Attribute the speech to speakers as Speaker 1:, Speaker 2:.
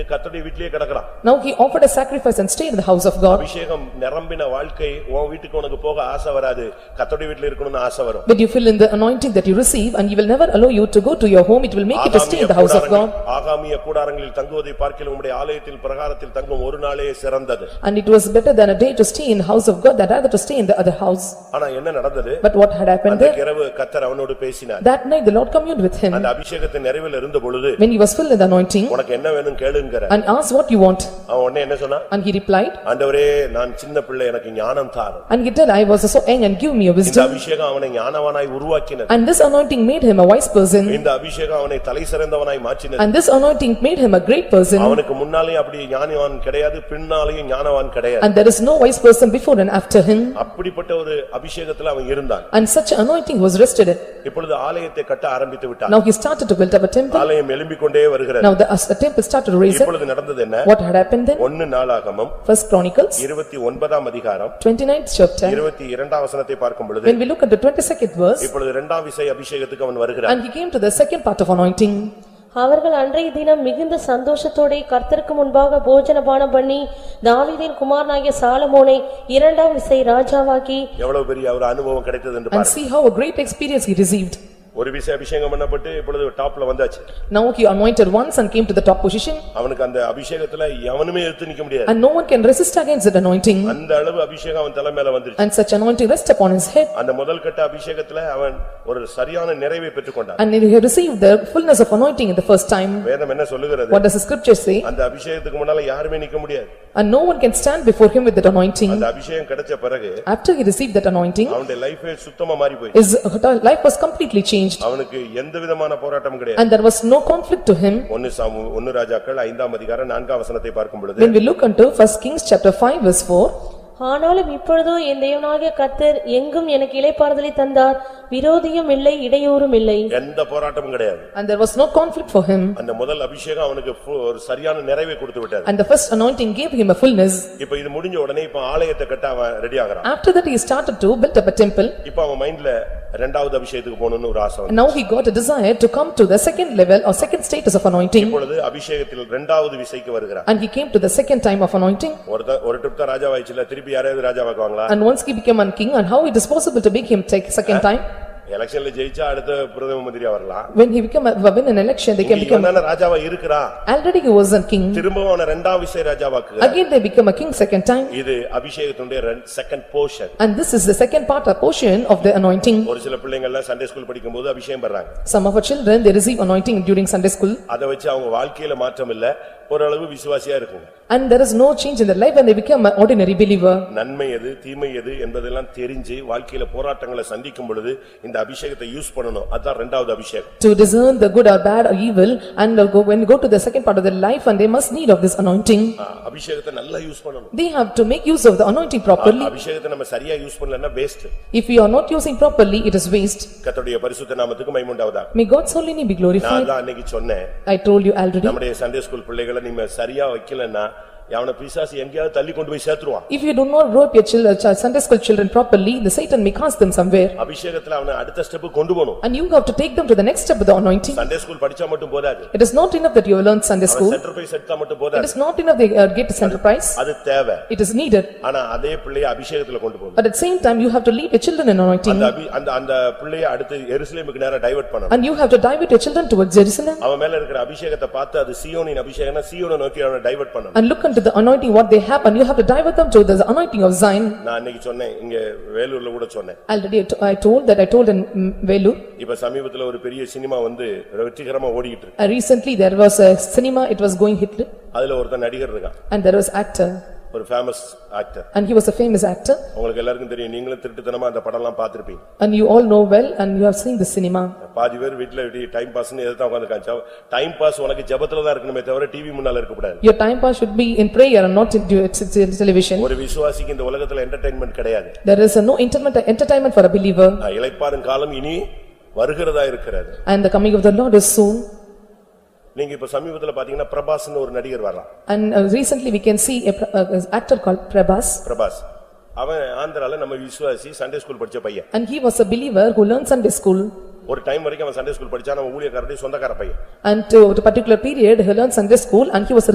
Speaker 1: கர்த்தருடைய வீட்டிலேயே கிடக்கலாம்
Speaker 2: Now he offered a sacrifice and stayed in the house of God.
Speaker 1: அபிஷேகம் நிரம்பின வாழ்க்கை உன் வீட்டுக்கு உனக்கு போக ஆசை வராது கர்த்தருடைய வீட்டில் இருக்கணும்னு ஆசை வரும்
Speaker 2: But you fill in the anointing that you receive and he will never allow you to go to your home, it will make you to stay in the house of God.
Speaker 1: ஆகாமிய கூடாரங்களில்- ஆகாமிய கூடாரங்களில் தங்குவதை பார்க்கிலும் உம்முடைய ஆலயத்தில் பிரகாரத்தில் தங்கும் ஒரு நாளே சிறந்தது
Speaker 2: And it was better than a day to stay in the house of God than rather to stay in the other house.
Speaker 1: ஆனா என்ன நடந்தது
Speaker 2: But what had happened
Speaker 1: அந்த
Speaker 2: there?
Speaker 1: இரவு கத்தர் அவனோடு பேசினார்
Speaker 2: That night the Lord communed with him
Speaker 1: அந்த அபிஷேகத்தின் நிறைவில் இருந்த பொழுது
Speaker 2: when he was filled with the anointing
Speaker 1: உனக்கு என்ன வேணும் கேளுங்கிற
Speaker 2: and asked what you want.
Speaker 1: அவன் உடனே என்ன சொன்னான்
Speaker 2: And he replied,
Speaker 1: ஆண்டவரே நான் சின்ன பிள்ளை எனக்கு ஞானம் தாரும்
Speaker 2: and he told, I was so young and give me a
Speaker 1: இந்த
Speaker 2: wisdom.
Speaker 1: அபிஷேகம் அவனை ஞானவனாய் உருவாக்கினது
Speaker 2: And this anointing made him a wise person
Speaker 1: இந்த அபிஷேகம் அவனை தலை சிறந்தவனாய் மாற்றினது
Speaker 2: and this anointing made him a great person
Speaker 1: அவனுக்கு முன்னாலேயும் அப்படி ஞானவான் கிடையாது பின்னாலேயும் ஞானவான் கிடையாது
Speaker 2: and there is no wise person before and after him
Speaker 1: அப்படிப்பட்ட ஒரு அபிஷேகத்துல அவன் இருந்தான்
Speaker 2: and such anointing was rested.
Speaker 1: இப்பொழுது ஆலயத்தை கட்ட ஆரம்பித்து விட்டான்
Speaker 2: Now he started to build up a temple.
Speaker 1: ஆலயம் எழும்பிக் கொண்டே வருகிறது
Speaker 2: Now the as the temple started to raise up.
Speaker 1: இப்பொழுது நடந்தது என்ன
Speaker 2: What had happened then?
Speaker 1: ஒன்னு நாளாகமம்
Speaker 2: First Chronicles,
Speaker 1: இருபத்தி ஒன்பதாம் அதிகாரம்
Speaker 2: 29th chapter.
Speaker 1: இருபத்தி இரண்டாம் வசனத்தை பார்க்கும் பொழுது
Speaker 2: When we look at the 22nd verse,
Speaker 1: இப்பொழுது இரண்டாம் விசை அபிஷேகத்துக்கு அவன் வருகிறான்
Speaker 2: and he came to the second part of anointing.
Speaker 3: அவர்கள் அன்றைய தினம் மிகுந்த சந்தோஷத்தோடே கர்த்தருக்கு முன்பாக போஜனபானம் பண்ணி தாவீதின் குமாரனாகிய சாலமோனை இரண்டாம் விசை ராஜாவாக்கி
Speaker 1: எவ்வளவு பெரிய ஒரு அனுபவம் கிடைத்தது என்று
Speaker 2: And
Speaker 1: பாருங்க
Speaker 2: see how a great experience he received.
Speaker 1: ஒரு விசை அபிஷேகம் பண்ணப்பட்டு இப்பொழுது டாப்ல வந்தாச்சு
Speaker 2: Now he anointed once and came to the top position
Speaker 1: அவனுக்கு அந்த அபிஷேகத்துல எவனுமே எடுத்து நிக்க முடியாது
Speaker 2: and no one can resist against that anointing.
Speaker 1: அந்த அளவு அபிஷேகம் அவன் தலை மேல வந்துருச்சு
Speaker 2: And such anointing rest upon his head
Speaker 1: அந்த முதல் கட்ட அபிஷேகத்துல அவன் ஒரு சரியான நிறைவை பெற்றுக்கொண்டான்
Speaker 2: and he received the fullness of anointing in the first time.
Speaker 1: வேதம் என்ன சொல்லுகிறது
Speaker 2: What does the scripture say?
Speaker 1: அந்த அபிஷேகத்துக்கு முன்னால யாருமே நிக்க முடியாது
Speaker 2: And no one can stand before him with that anointing.
Speaker 1: அந்த அபிஷேகம் கிடைச்ச பிறகு
Speaker 2: After he received that anointing,
Speaker 1: அவனுடைய லைஃபே சுத்தமா மாறி போய்
Speaker 2: his life was completely changed
Speaker 1: அவனுக்கு எந்த விதமான போராட்டமும் கிடையாது
Speaker 2: and there was no conflict to him.
Speaker 1: ஒன்னு சாமு ஒன்னு ராஜாக்கள் ஐந்தாம் அதிகாரம் நான்காம் வசனத்தை பார்க்கும் பொழுது
Speaker 2: When we look unto first Kings chapter five verse four,
Speaker 3: ஆனாலும் இப்பொழுதோ என் தேவனாகிய கர்த்தர் எங்கும் எனக்கு இளைப்பாறுதலை தந்தார் விரோதியும் இல்லை இடையூறும் இல்லை
Speaker 1: எந்த போராட்டமும் கிடையாது
Speaker 2: and there was no conflict for him,
Speaker 1: அந்த முதல் அபிஷேகம் அவனுக்கு ஃபு- ஒரு சரியான நிறைவை கொடுத்து விட்டாரு
Speaker 2: and the first anointing gave him a fullness.
Speaker 1: இப்ப இது முடிஞ்ச உடனே இப்ப ஆலயத்தை கட்ட அவன் ரெடி ஆகுறான்
Speaker 2: After that, he started to build up a temple,
Speaker 1: இப்ப அவன் மைண்ட்ல ரெண்டாவது அபிஷேகத்துக்கு போகணும்னு ஒரு ஆசை வந்து
Speaker 2: and now he got a desire to come to the second level or second status of anointing,
Speaker 1: இப்பொழுது அபிஷேகத்தில் ரெண்டாவது விசைக்கு வருகிறான்
Speaker 2: and he came to the second time of anointing.
Speaker 1: ஒருத்த ஒரு ட்ரிப் தான் ராஜாவாயிடுச்சுல திருப்பி யாரையாவது ராஜாவாக்குவாங்களா
Speaker 2: And once he became a king, and how it is possible to make him take second time?
Speaker 1: எலெக்ஷன்ல ஜெயிச்சா அடுத்த பிரதம மந்திரியா வரலாம்
Speaker 2: When he became, a- win an election, they can become,
Speaker 1: இவன் தானே ராஜாவா இருக்கிறான்
Speaker 2: already he was a king,
Speaker 1: திரும்பவும் அவன ரெண்டாம் விசை ராஜாவாக்குகிறான்
Speaker 2: again they become a king second time,
Speaker 1: இது அபிஷேகத்தினுடைய second portion
Speaker 2: and this is the second part or portion of the anointing.
Speaker 1: ஒரு சில பிள்ளைங்க எல்லாம் சண்டே ஸ்கூல் படிக்கும்போது அபிஷேகம் பண்றாங்க
Speaker 2: Some of our children, they receive anointing during Sunday school,
Speaker 1: அதை வச்சு அவங்க வாழ்க்கையில மாற்றம் இல்ல ஓரளவு விசுவாசியா இருக்கும்
Speaker 2: and there is no change in their life, and they become an ordinary believer.
Speaker 1: நன்மை எது தீமை எது என்பதெல்லாம் தெரிஞ்சு வாழ்க்கையில போராட்டங்களை சந்திக்கும் பொழுது இந்த அபிஷேகத்தை யூஸ் பண்ணணும் அதான் ரெண்டாவது அபிஷேகம்
Speaker 2: To discern the good or bad or evil, and go- when go to the second part of their life, and they must need of this anointing,
Speaker 1: ஆ, அபிஷேகத்தை நல்லா யூஸ் பண்ணணும்
Speaker 2: they have to make use of the anointing properly.
Speaker 1: அபிஷேகத்தை நம்ம சரியா use பண்ணலன்னா waste
Speaker 2: If we are not using properly, it is waste.
Speaker 1: கர்த்தருடைய பரிசுத்த நாமத்துக்கு மைமுண்டாவதா
Speaker 2: May God's holy name be
Speaker 1: நான்
Speaker 2: glorified.
Speaker 1: தான் அன்னைக்கு சொன்னேன்
Speaker 2: I told you already.
Speaker 1: நம்முடைய சண்டே ஸ்கூல் பிள்ளைகளை நீங்க சரியா வைக்கலன்னா அவன பிசாசு எங்கேயாவது தள்ளி கொண்டு போய் சேர்த்துருவான்
Speaker 2: If you do not grow up your children, Sunday school children properly, the Satan may cast them somewhere.
Speaker 1: அபிஷேகத்துல அவனை அடுத்த ஸ்டெப் கொண்டு போகணும்
Speaker 2: And you have to take them to the next step of the anointing.
Speaker 1: Sunday school படிச்சா மட்டும் போதாது
Speaker 2: It is not enough that you have learned Sunday school.
Speaker 1: Centre போய் செட்டா மட்டும்
Speaker 2: It
Speaker 1: போதாது
Speaker 2: is not enough they uh, get a center prize.
Speaker 1: அது தேவை
Speaker 2: It is needed.
Speaker 1: ஆனா அதே பிள்ளையை அபிஷேகத்துல கொண்டு போகணும்
Speaker 2: But at the same time, you have to lead your children in
Speaker 1: அந்த
Speaker 2: anointing.
Speaker 1: அபி- அந்த அந்த பிள்ளையை அடுத்து எருசலேமுக்கு நேரா டைவர்ட் பண்ணணும்
Speaker 2: And you have to divert your children towards Jerusalem.
Speaker 1: அவன் மேல இருக்கிற அபிஷேகத்தை பார்த்து அது சீயோனின் அபிஷேகம்னா சீயோனை நோக்கி அவனை டைவர்ட் பண்ணணும்
Speaker 2: And look unto the anointing what they have and you have to divert them to the anointing of Zion.
Speaker 1: நான் அன்னைக்கு சொன்னேன் இங்க வேலூர்ல கூட சொன்னேன்
Speaker 2: Already I to- I told that I told in mm, Velu.
Speaker 1: இப்ப சமீபத்துல ஒரு பெரிய சினிமா வந்து வெற்றிகரமா ஓடிக்கிட்டு இருக்கு
Speaker 2: Uh, Recently, there was a cinema, it was going Hitler
Speaker 1: அதுல ஒருத்தன் நடிகர் இருக்கான்
Speaker 2: and there was actor.
Speaker 1: ஒரு famous actor
Speaker 2: And he was a famous actor
Speaker 1: உங்களுக்கு எல்லாருக்கும் தெரியும் நீங்களும் திருட்டுத்தனமா அந்த படம் எல்லாம் பார்த்திருப்பீங்க
Speaker 2: and you all know well and you have seen the cinema.
Speaker 1: பாதி பேர் வீட்டுல டைம் பாஸ்னு எதிர்த்தா உட்காந்துருக்காங்க டைம் பாஸ் உனக்கு ஜெபத்துல தான் இருக்கணுமே தவிர டிவி முன்னால இருக்கக்கூடாது
Speaker 2: Your time pass should be in prayer and not in do- t- t- television.
Speaker 1: ஒரு விசுவாசிக்கு இந்த உலகத்துல என்டர்டைன்மெண்ட் கிடையாது
Speaker 2: There is a no entertainment uh, entertainment for a believer
Speaker 1: நான் இளைப்பாறும் காலம் இனி வருகிறதா இருக்கிறது
Speaker 2: and the coming of the Lord is soon.
Speaker 1: நீங்க இப்ப சமீபத்துல பாத்தீங்கன்னா பிரபாஸ்னு ஒரு நடிகர் வரலாம்
Speaker 2: And uh, recently, we can see a pr- uh, uh, actor called Prabhas
Speaker 1: Prabhas அவன் ஆந்திரால நம்ம விசுவாசி சண்டே ஸ்கூல் படிச்ச பையன்
Speaker 2: and he was a believer who learned Sunday school.
Speaker 1: ஒரு டைம் வரைக்கும் அவன் சண்டே ஸ்கூல் படிச்சா நம்ம ஊழியக்காரடி சொந்தக்கார பையன்
Speaker 2: And to a particular period, he learned Sunday school and he was a